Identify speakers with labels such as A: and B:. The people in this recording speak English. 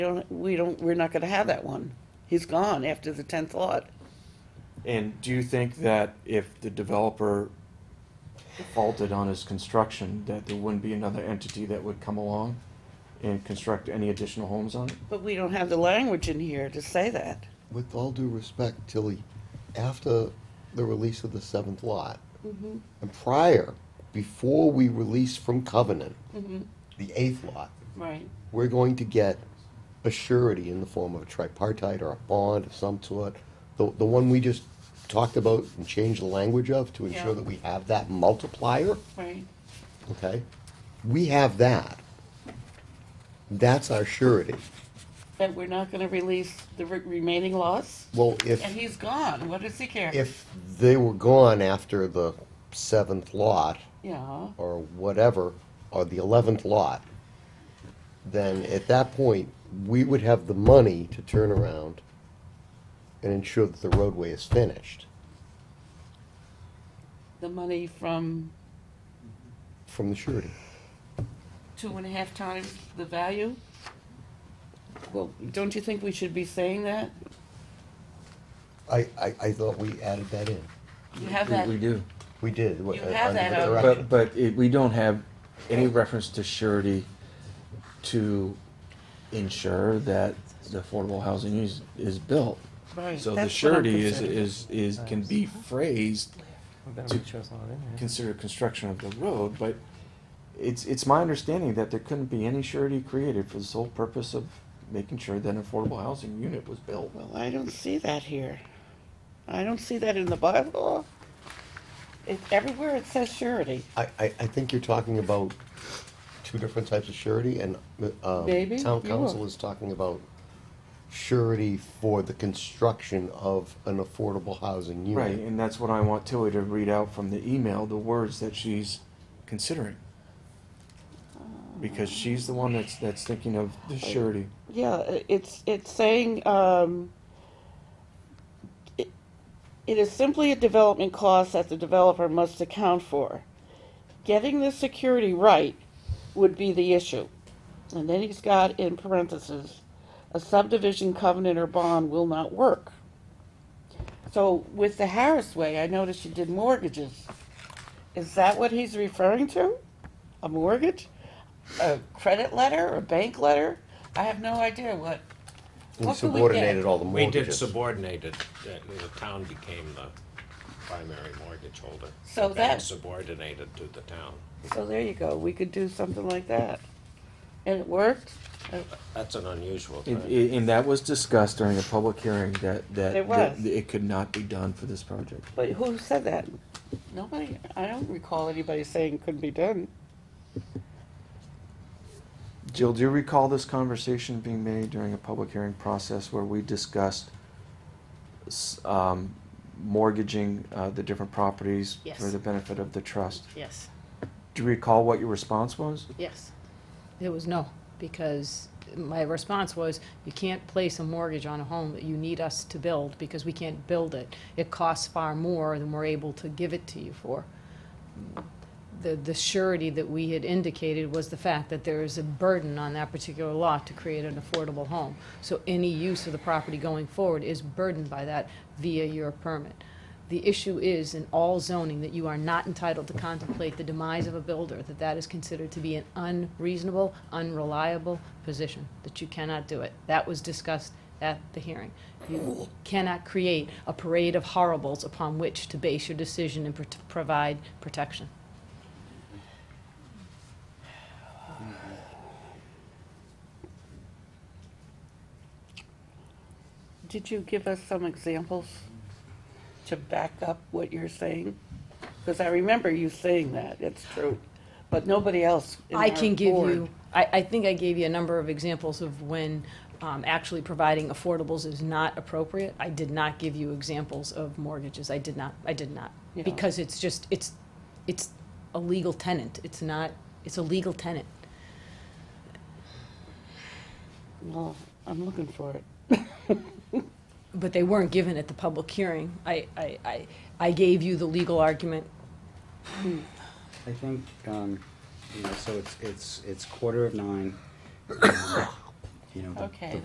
A: don't, we don't, we're not gonna have that one. He's gone after the tenth lot.
B: And do you think that if the developer faulted on his construction, that there wouldn't be another entity that would come along and construct any additional homes on it?
A: But we don't have the language in here to say that.
C: With all due respect, Tilly, after the release of the seventh lot,
A: Mm-hmm.
C: and prior, before we release from covenant,
A: Mm-hmm.
C: the eighth lot,
A: Right.
C: we're going to get a surety in the form of a tripartite or a bond of some sort. The, the one we just talked about and changed the language of to
A: Yeah.
C: ensure that we have that multiplier,
A: Right.
C: okay? We have that. That's our surety.
A: That we're not gonna release the re- remaining lots?
C: Well, if.
A: And he's gone, what does he care?
C: if they were gone after the seventh lot
A: Yeah,
C: or whatever, or the eleventh lot, then at that point, we would have the money to turn around and ensure that the roadway is finished
A: the money from
C: from the surety.
A: two and a half times the value? Well, don't you think we should be saying that?
C: I, I, I thought we added that in.
A: You have
B: We-
A: that,
B: We do,
C: We did.
A: You have that on-
B: but, but it, we don't have any reference to surety to ensure that the affordable housing is, is built.
A: right.
B: So the
A: that's what I'm
B: surety is,
A: concerned.
B: is, is, can be phrased
D: Better make sure it's not in here.
B: consider construction of the road, but it's, it's my understanding that there couldn't be any surety created for the sole purpose of making sure that an affordable housing unit was built.
A: Well, I don't see that here. I don't see that in the bylaw. It, everywhere it says surety.
C: I, I, I think you're talking about two different types of surety, and, um,
A: Maybe,
C: town
A: you
C: council
A: are.
C: is talking about surety for the construction of an affordable housing unit.
B: Right, and that's what I want Tilly to read out from the email, the words that she's considering.
A: Uh,
B: Because she's the one that's, that's thinking of the surety.
A: Yeah, i- it's, it's saying, um, it it is simply a development cost that the developer must account for. Getting the security right would be the issue. And then he's got in parentheses, a subdivision covenant or bond will not work. So with the Harris Way, I noticed you did mortgages. Is that what he's referring to? A mortgage? a credit letter, a bank letter? I have no idea what.
C: We
A: what could we
C: subordinated
A: get?
C: all the
E: We did
C: mortgages.
E: subordinated, the town became the primary mortgage holder.
A: So
E: The bank
A: that-
E: Subordinated to the town.
A: So there you go, we could do something like that. And it worked?
E: That's an unusual
B: And,
E: thing.
B: and that was discussed during a public hearing that, that.
A: It was.
B: that It could not be done for this project.
A: But who said that? Nobody, I don't recall anybody saying it couldn't be done.
B: Jill, do you recall this conversation being made during a public hearing process where we discussed s- um, mortgaging uh, the different properties
F: Yes.
B: for the benefit of the trust?
F: Yes,
B: Do you recall what your response was?
F: yes. It was no, because my response was, you can't place a mortgage on a home that you need us to build because we can't build it. It costs far more than we're able to give it to you for. The, the surety that we had indicated was the fact that there is a burden on that particular lot to create an affordable home. So any use of the property going forward is burdened by that via your permit. The issue is in all zoning that you are not entitled to contemplate the demise of a builder, that that is considered to be an unreasonable, unreliable position, that you cannot do it. That was discussed at the hearing. You cannot create a parade of horribles upon which to base your decision and pro- provide protection.
A: Did you give us some examples to back up what you're saying? Because I remember you saying that, it's true, but nobody else in
F: I
A: our
F: can give
A: board-
F: you, I, I think I gave you a number of examples of when um, actually providing affordables is not appropriate. I did not give you examples of mortgages. I did not, I did not.
A: Yeah.
F: Because it's just, it's, it's a legal tenant. It's not, it's a legal tenant.
A: Well, I'm looking for it.
F: But they weren't given at the public hearing. I, I, I, I gave you the legal argument.
G: I think, um, you know, so it's, it's, it's quarter of nine. Um, you know, the-
A: Okay,
G: the